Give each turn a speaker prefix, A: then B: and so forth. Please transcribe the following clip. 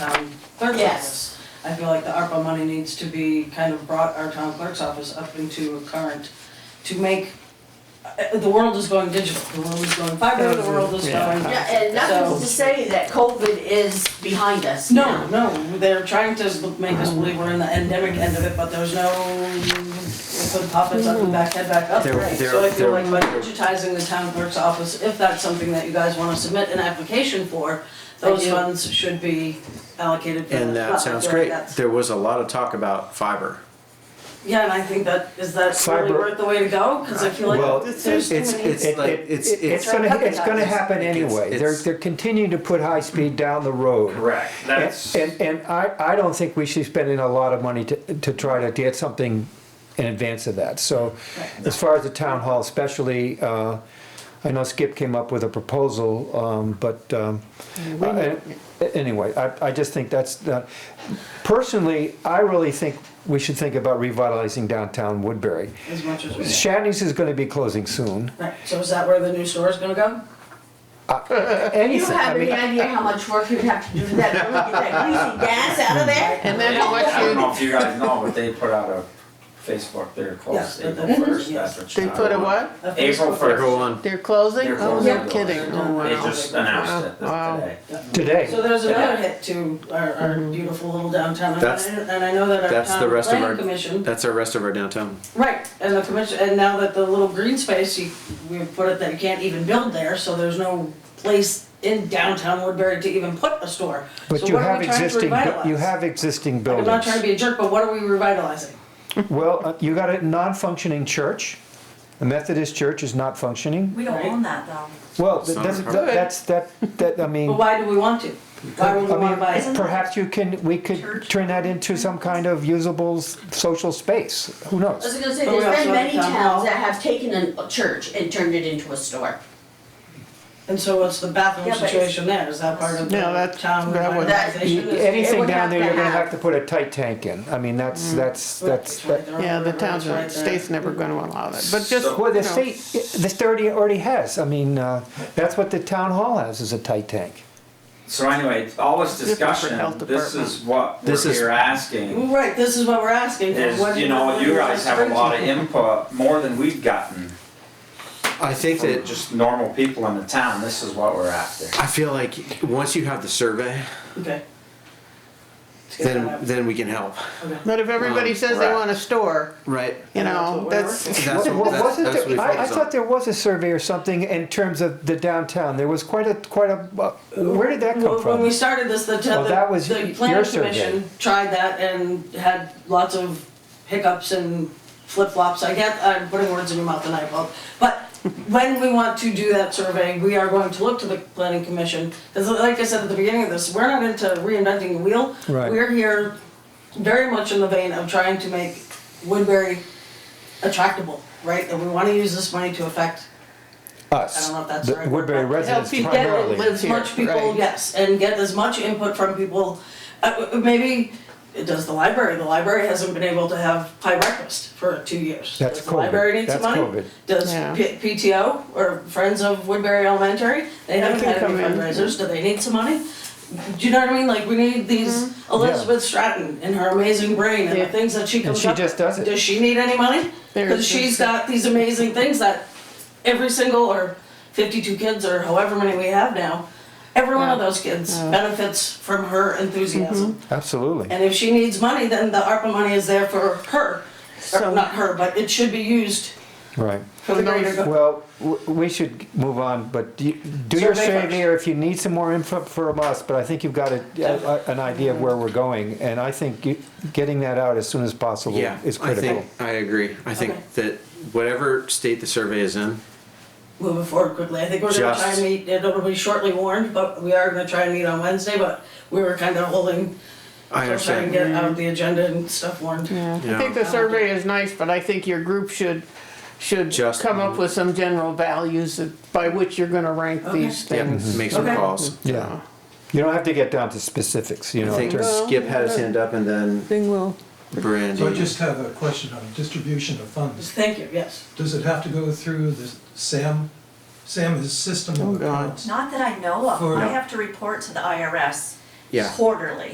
A: Yes.
B: um, office. I feel like the ARPA money needs to be kind of brought our town clerk's office up into a current to make, uh, the world is going digital, the world is going fiber, the world is
C: Yeah.
B: going.
A: Yeah, and nothing to say that COVID is behind us
B: No,
A: now.
B: no, they're trying to s- make us believe we're in the endemic end of it, but there's no, put puppets up and back, head back up.
C: They're-
B: Right. So
C: they're-
B: I feel
C: they're-
B: like by digitizing the town clerk's office, if that's something that you guys wanna submit an application for, those
A: do.
B: funds should be allocated for that.
C: And that
B: But I
C: sounds
B: feel like
C: great.
B: that's-
C: There was a lot of talk about fiber.
B: Yeah, and I think that, is that really
D: Fiber.
B: worth the way to go? Cause I feel
C: Well,
B: like
C: it's,
B: there's too
C: it's,
B: many.
C: it's
D: It-
C: like,
D: it-
C: it's,
D: it-
C: it's.
D: gonna, it's gonna happen
C: It's-
D: anyway. They're,
C: it's-
D: they're continuing to put high speed down the road.
E: Correct,
D: And,
E: that's,
D: and- and I, I don't think we should be spending a lot of money to, to try to get something in advance of that. So as far as the town hall especially, uh, I know Skip came up with a proposal, um, but, um, uh, anyway, I, I just think that's, uh, personally, I really think we should think about revitalizing downtown Woodbury.
B: As much as we can.
D: Shannys is gonna be closing soon.
B: Right, so is that where the new store is gonna go?
A: You
D: Anything, I
A: have any
D: mean,
A: idea how much work you'd have to do to that, really get that greasy gas out of there?
F: And then how
E: I don't
F: much
E: know if you guys know, but they put out a Facebook, they're closed
B: Yeah,
E: April
B: the- the-
E: first,
B: yes.
E: that's what
F: you,
E: you
F: they put a what?
B: A
E: April
B: Facebook-
C: Go
E: first,
C: on.
F: They're closing?
E: They're
F: Oh,
E: closing.
F: no kidding. Oh,
E: they
F: wow.
E: just announced it
F: Wow.
E: today.
B: So
D: today,
B: there's another hit to our, our
D: Mm-hmm.
B: beautiful little downtown, and I,
C: That's-
B: and I know that our
C: that's the
B: town
C: rest of
B: planning
C: our-
B: commission,
C: That's our rest of our downtown.
B: right, and the commission, and now that the little green space, you, we put it that you can't even build there, so there's no place in downtown Woodbury to even put a store.
D: but
B: So
D: you
B: what are
D: have
B: we trying to
D: existing, bu- you
B: revitalize?
D: have existing
B: Like, I'm
D: buildings.
B: not trying to be a jerk, but what are we revitalizing?
D: Well, uh, you got a non-functioning church. The Methodist church is not functioning.
G: We don't own that though.
D: Well, th-
C: Some
D: that's, that-
C: are.
D: that's, that, that, I mean,
B: But why do we want to? Why
D: I
B: would we wanna buy
D: mean,
B: it?
D: perhaps you can, we could turn that into some kind of usable s- social space. Who
A: I was
D: knows?
A: gonna say,
B: But we
A: there's
B: also
A: been
B: have
A: many
B: town hall.
A: towns that have taken an- a church and turned it into a store.
B: And so what's the bathroom
G: Yeah, but it's-
B: situation there? Is that part of the
F: Yeah, that's-
B: town
F: that would-
B: revitalization? Is-
D: Anything
A: would
D: down
A: have
D: there,
A: to
D: you're gonna
A: have-
D: have to put a tight tank in. I mean, that's, that's, that's,
B: It's Mm-hmm. right
D: that.
B: there on
F: Yeah, the
B: river,
F: towns,
B: it's right
F: are-
B: there.
F: state's never gonna allow that, but just.
D: Well,
F: you
D: the
F: know,
D: state, the state already- already has. I mean, uh, that's what the town hall has, is a tight tank.
E: So anyway, all this
F: Different for
E: discussion,
F: health
E: this is what
C: This
E: we're
C: is-
E: here asking,
B: Right, this is what we're asking for. What
E: is,
B: do
E: you know,
B: want
E: you
B: to
E: guys have a
B: restrict?
E: lot of input, more than we've gotten
C: I think
E: from
C: that,
E: just normal people in the town, this is what we're after.
C: I feel like once you have the survey,
B: Okay. Let's get that
C: then,
B: out.
C: then we can help,
B: Okay.
F: But if everybody
C: Um,
F: says they
E: right.
F: want a store,
C: right?
F: you
B: That's what
F: know,
B: we're
F: that's,
B: working
C: That's
D: Well,
C: what, that's,
D: wasn't
C: that's what we
D: there- I, I
C: focus on.
D: thought there was a survey or something in terms of the downtown. There was quite a, quite a, uh, where did that come
B: Well, When we
D: from?
B: started this, the,
D: Well, that was
B: the, the
D: y-
B: planning
D: your survey.
B: commission tried that and had lots of hiccups and flip-flops. I get, I'm putting words in your mouth and I apologize. But when we want to do that survey, we are going to look to the planning commission. Because like I said at the beginning of this, we're not into reinventing the wheel.
D: Right.
B: We're here very much in the vein of trying to make Woodbury attractable, right? And we want to use this money to affect I
D: Us,
B: don't know if that's the
D: the
B: right word,
D: Woodbury
B: but to help
D: residents
F: you get it
D: primarily.
F: live-
B: as
F: here,
B: much people,
F: right.
B: yes, and get as much input from people. Uh, uh, Maybe, it does the library, the library hasn't been able to have pie breakfast for two years.
D: That's
B: Does the library
D: COVID.
B: need some
D: That's
B: money?
D: COVID.
B: Does
F: Yeah.
B: P- PTO or Friends of Woodbury Elementary, they haven't
F: can
B: had any
F: come in.
B: fundraisers, do they need some money? Do you know what I mean? Like, we need these Elizabeth Stratton and her amazing brain and the
F: Mm-hmm. Yeah.
B: things that she comes
D: she
B: up
D: just
B: with.
D: does it.
B: Does she need any money?
F: There's
B: Because she's
F: just-
B: got these amazing things that every single or 52 kids or however many we have now every one of those kids benefits from her enthusiasm
D: Mm-hmm. Absolutely.
B: and if she needs money then the arpa money is there for her or
F: So-
B: not her but it should be used
D: Right.
B: for the greater good
D: Well, w- we should move on, but do you- do your
B: Survey first.
D: survey or if you need some more info from us, but I think you've got a- a- an idea of where we're going. And I think you- getting that out as soon as possible
C: Yeah,
D: is
C: I
D: critical.
C: think, I agree. I
B: Okay.
C: think that whatever state the survey is in,
B: moving forward quickly i think we're going to try and
C: Just-
B: meet it'll be shortly warned but we are going to try and meet on wednesday but we were kind of holding
C: I
B: to try and
C: understand.
B: get out the agenda and stuff warned
F: I think the survey is nice, but I think your group should, should
C: Just-
F: come up with some general values that- by which you're gonna rank
B: Okay.
F: these
C: Yeah,
F: things.
C: make some
B: Okay.
C: calls.
D: Yeah. You don't have to get down to specifics, you
C: I
D: know. in
C: think
D: terms-
C: Skip had his hand up and then
F: Thing will.
C: Brandy.
H: So I just have a question on distribution of funds.
B: thank you yes
H: Does it have to go through the SAM, SAM is system
F: Oh,
H: of
F: God.
H: accounts?
G: Not that I know of.
H: For-
G: I have to report to the IRS
C: Yeah.
G: quarterly.